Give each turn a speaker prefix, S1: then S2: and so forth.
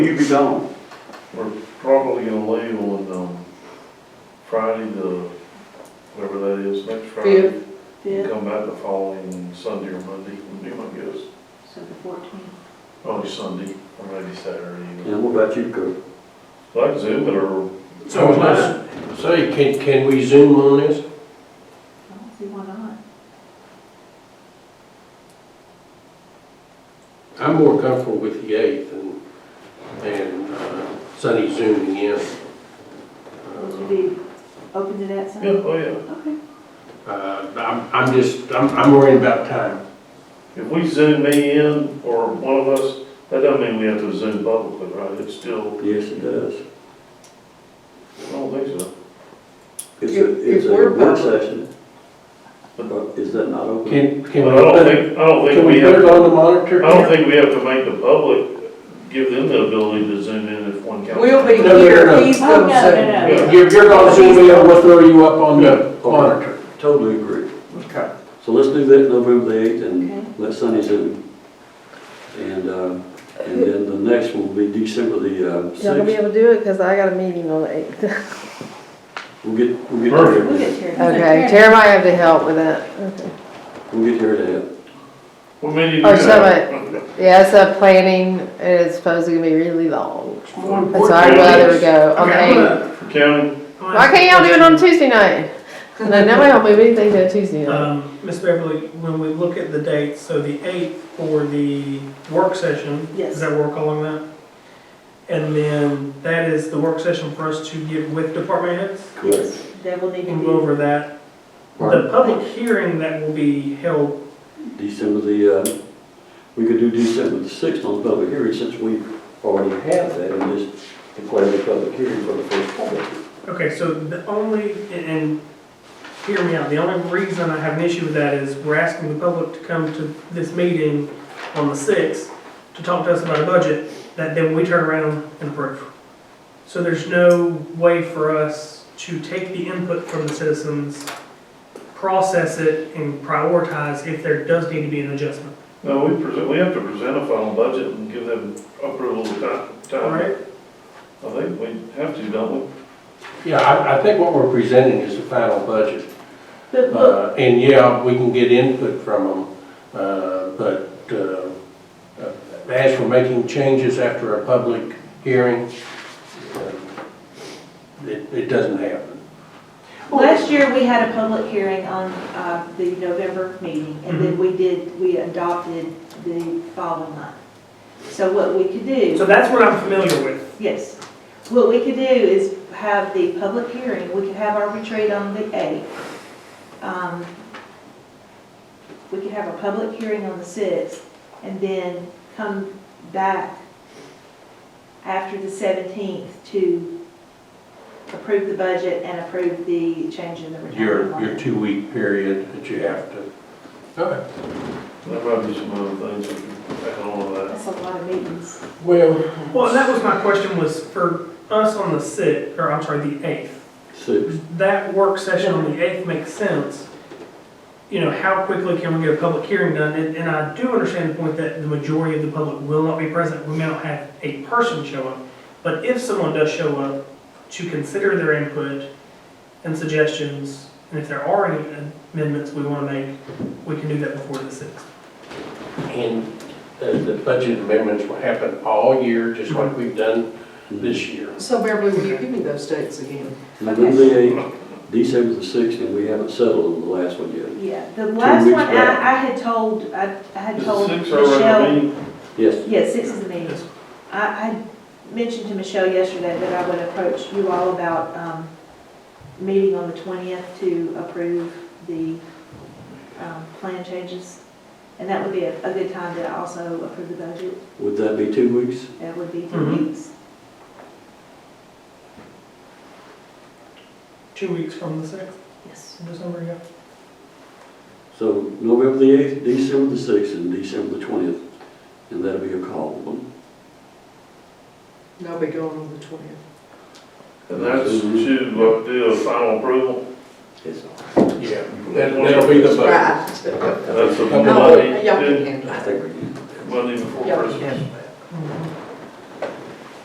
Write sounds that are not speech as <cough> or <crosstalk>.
S1: You be gone.
S2: We're probably gonna leave on, um, Friday, the, whatever that is, next Friday.
S3: Fifth,
S2: Come back the following Sunday or Monday, would be my guess.
S3: so the fourteenth.
S2: Probably oh, Sunday, or maybe Saturday. you know.
S1: And what about you, Kirk?
S2: Like Zoom it or,
S4: So let's say, can, can we zoom on this?
S3: I don't see why not.
S4: I'm more comfortable with the eighth and, and uh, Sunny zooming in.
S3: Would you be open to that,
S2: yeah,
S3: Sunday?
S2: oh yeah.
S3: Okay.
S4: Uh, I'm, I'm just, I'm, I'm worried about time.
S2: If we Zoom me in or one of us, that doesn't mean we have to Zoom publicly, right? It's still,
S1: Yes, it does.
S2: I don't think so.
S1: It's a, it's
S5: If- if
S1: a
S5: we're
S1: work
S5: public-
S1: session. But Is that not open?
S4: Can, can
S2: But
S4: we,
S2: I don't
S4: put-
S2: think, I don't think
S4: can we
S2: we
S4: put
S2: have,
S4: it
S2: I
S4: on the monitor?
S2: don't think we have to make the public, give them the ability to Zoom in if one counts.
S5: We'll be
S4: No, no, no, no.
S5: here, he's
S3: Oh, no,
S5: gonna say.
S3: no, no.
S4: You're, you're gonna zoom in, we'll throw you up on the monitor.
S1: Totally agree.
S4: Okay.
S1: So let's do that November the eighth
S3: Okay.
S1: and let Sunny zoom. And, uh, and then the next will be December the uh,
S5: Y'all gonna be
S1: sixth.
S5: able to do it, because I got a meeting on the eighth.
S1: We'll get, we'll get
S2: Perfect.
S3: We'll
S1: Terry,
S3: get Terry.
S5: <laughs> Okay, Tara might have to help with that. Okay.
S1: we'll get Terry to help.
S2: What many do you
S5: Or
S2: have?
S5: Yeah, it's a planning, and it's supposed to be really long. That's why I'd
S2: important
S5: rather
S2: is-
S5: go, okay?
S2: County,
S5: Why can't y'all do it on Tuesday night? No, nobody will move anything to a Tuesday night.
S6: Um, Ms. Beverly, when we look at the dates, so the 8th for the work session.
S3: Yes.
S6: Does that work along that? And then that is the work session for us to get with department heads
S1: Correct.
S3: They will need
S6: and
S3: to
S6: go over that. The
S1: Right.
S6: public hearing that will be held,
S1: December the, uh, we could do December the sixth on the public hearing since we already have that and just declare the public hearing for the first public.
S6: okay, so the only, and- and hear me out, the only reason I have an issue with that is we're asking the public to come to this meeting on the 6th to talk to us about a budget that then we turn around and approve. So there's no way for us to take the input from the citizens, process it, and prioritize if there does need to be an adjustment,
S2: no, we present, we have to present a final budget and give them approval of ti-
S6: all
S2: time.
S6: right?
S2: I think we have to, don't we?
S4: Yeah, I, I think what we're presenting is the final budget.
S3: But look,
S4: Uh, And yeah, we can get input from them, uh, but uh, uh, as for making changes after a public hearing, uh, it it doesn't happen.
S3: last year, we had a public hearing on, uh, the November meeting, and then we did, we adopted the following month. So what we could do.
S6: So that's what I'm familiar with,
S3: Yes. What we could do is have the public hearing, we could have our retreat on the 8th. Um, We could have a public hearing on the 6th, and then come back after the 17th to approve the budget and approve the change in the retirement
S4: Your, your
S3: plan.
S4: two-week period that you have to. Okay.
S2: There might be some other things we can back on that.
S3: That's a lot of meetings.
S4: Well,
S6: well, and that was my question was for us on the 6th, or I'm sorry, the 8th.
S1: Sixth.
S6: that work session on the 8th makes sense, you know, how quickly can we get a public hearing done? And, and I do understand the point that the majority of the public will not be present. We may not have a person show up. But if someone does show up to consider their input and suggestions, and if there are any amendments we want to make, we can do that before the 6th.
S4: and the the budget amendments will happen all year, just like we've done
S5: Mm-hmm.
S4: this year.
S7: So Beverly, will you give me those dates again?
S1: November the eighth, December the sixth, and we haven't settled on the last one yet.
S3: Yeah, the last
S1: weeks
S3: one, I,
S1: back.
S3: I had told, I I had
S2: Is
S3: told
S2: it six or whatever
S3: Michelle.
S2: meeting?
S1: Yes,
S3: Yes, six is the meeting. I, I mentioned to Michelle yesterday that I would approach you all about, um, meeting on the twentieth to approve the, um, plan changes. And that would be a, a good time to also approve the budget.
S1: would that be two weeks?
S3: That would be two
S6: Mhm.
S3: weeks.
S6: Two weeks from the 6th,
S3: Yes.
S6: of December, yeah.
S1: So November the eighth, December the sixth, and December the twentieth, and that'll be your call.
S7: No, we go on the twentieth.
S2: And that's to uh, do a final approval.
S1: Yes.
S4: Yeah. that- That'll be the budget.
S7: Right.
S2: That's the
S4: Okay.
S7: No,
S2: Monday,
S7: y'all can
S2: then
S7: handle
S1: I
S7: that.
S1: think we can.
S2: Monday before
S7: Y'all can
S2: Christmas.
S7: handle that.
S6: Mhm.